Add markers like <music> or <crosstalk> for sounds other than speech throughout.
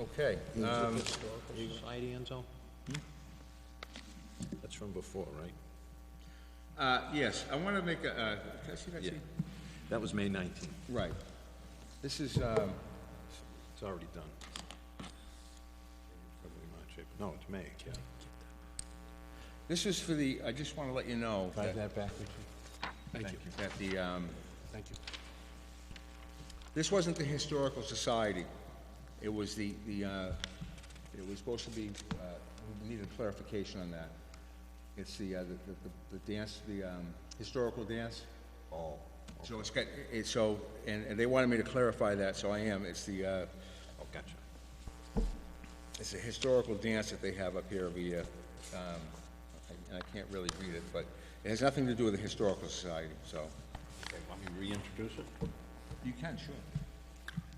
Okay, um, Historical Society, Enzo? Hmm? That's from before, right? uh, yes, I want to make a, uh, can I see that sheet? That was May nineteenth. Right. This is, um, It's already done. February, March, April. No, it's May, yeah. this is for the, I just want to let you know Drive that that, back, would you? Thank you, that the, um, thank you. this wasn't the Historical Society. It was the, the, uh, it was supposed to be, uh, we needed clarification on that. It's the, uh, the, the, the dance, the, um, historical dance. Oh. So it's got, it's so, and, and they wanted me to clarify that, so I am. It's the, uh, Oh, gotcha. It's a historical dance that they have up here every year, um, I- and I can't really read it, but it has nothing to do with the Historical Society, so. Okay, want me to reintroduce it? You can, sure.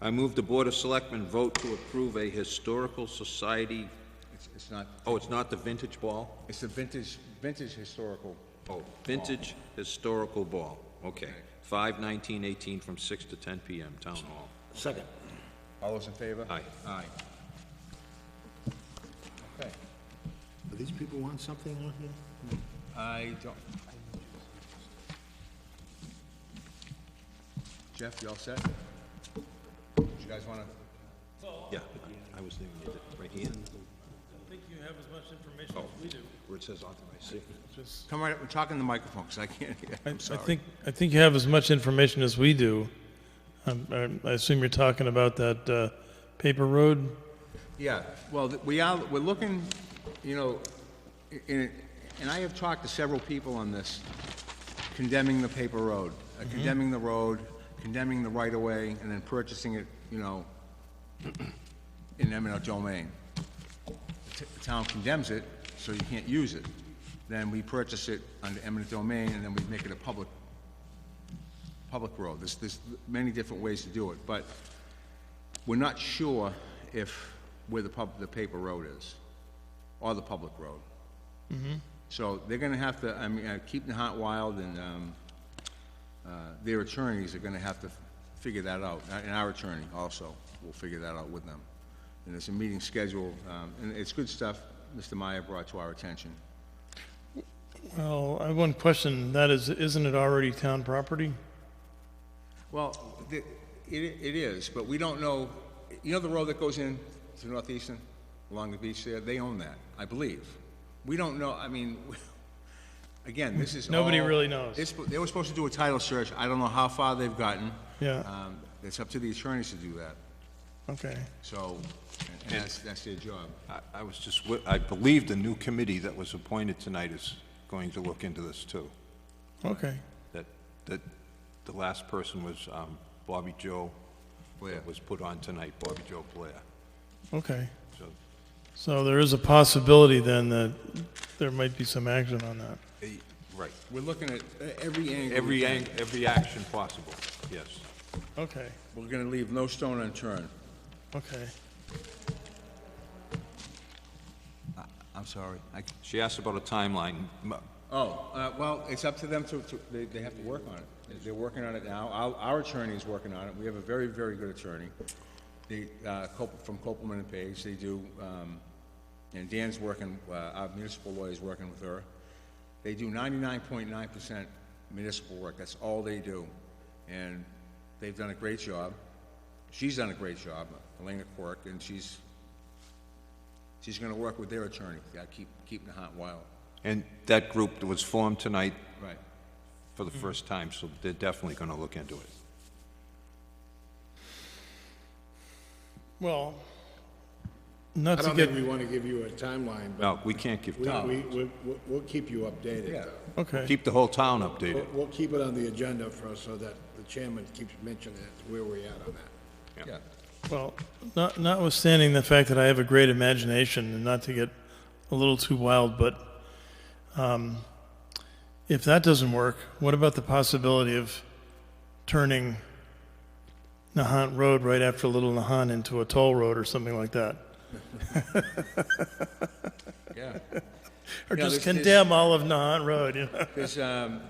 I move the Board of Selectmen vote to approve a historical society, It's, it's not, oh, it's not the vintage ball? it's a vintage, vintage historical, Oh, vintage historical ball, okay. Five nineteen eighteen from six to ten PM, Town Hall. Second. all those in favor? Aye. Aye. Okay, Do these people want something on here? I don't. Jeff, you all set? You guys wanna, Yeah, I was there when you did, right here, I think you have as much information Oh, as we do. where it says authorized signature. come right up, and talk in the microphone, 'cause I can't hear, I'm I sorry. think, I think you have as much information as we do. Um, I I assume you're talking about that uh, paper road? Yeah, well, th- we are, we're looking, you know, i- in- and I have talked to several people on this, condemning the paper road, uh, Mm-hmm. condemning the road, condemning the right-of-way, and then purchasing it, you know, in eminent domain. T- The town condemns it, so you can't use it. Then we purchase it under eminent domain, and then we make it a public, public road. There's, there's many different ways to do it, but we're not sure if, where the pub, the paper road is, or the public road. So they're gonna have to, I mean, uh, Keaton Hot Wild and, um, uh, their attorneys are gonna have to figure that out, a- and our attorney also will figure that out with them. And there's a meeting scheduled, um, and it's good stuff Mr. Meyer brought to our attention. Well, I have one question, that is, isn't it already town property? Well, the- it, it is, but we don't know, you know the road that goes in to Northeastern, along the beach there? They own that, I believe. We don't know, I mean, <laughs> again, this is Nobody all- really knows. It's- They were supposed to do a title search, I don't know how far they've gotten. Yeah. Um, It's up to the attorneys to do that, Okay. so, and- and that's, that's their job. I- I was just, wi- I believe the new committee that was appointed tonight is going to look into this, too. Okay. That, that the last person was um, Bobby Joe, Blair. that was put on tonight, Bobby Joe Blair. Okay. So So there is a possibility then that there might be some action on that. eh, Right. We're looking at uh, every angle. we Every, can. ang- every action possible, yes. Okay, We're gonna leave no stone unturned. okay. I'm sorry, I, She asked about a timeline. M- Oh, uh, well, it's up to them to, to- they, they have to work on it. They- They're working on it now. Our, our attorney is working on it. We have a very, very good attorney. They, uh, Cop- from Copeland and Page, they do, um, and Dan's working, uh, our municipal lawyer's working with her. They do ninety-nine point nine percent municipal work. That's all they do. And they've done a great job. She's done a great job, Elena Quirk, and she's, she's gonna work with their attorney. Gotta keep, keeping the hot wild. And that group was formed tonight Right. for Hmm. the first time, so they're definitely gonna look into it. Well, I not to don't get, think we want to give you a timeline, but No, we can't keep, we, we, we- we'll- we'll keep you updated. Yeah. okay, keep the whole town updated. We'll, we'll keep it on the agenda for, so that the chairman keeps mentioning it, where we're at on that. Yeah. well, not notwithstanding the fact that I have a great imagination and not to get a little too wild, but um, if that doesn't work, what about the possibility of turning Nahant Road right after Little Nahant into a toll road or something like that? Yeah. Or Yeah, just there's- condemn all of Nahant Road, you know? There's, um,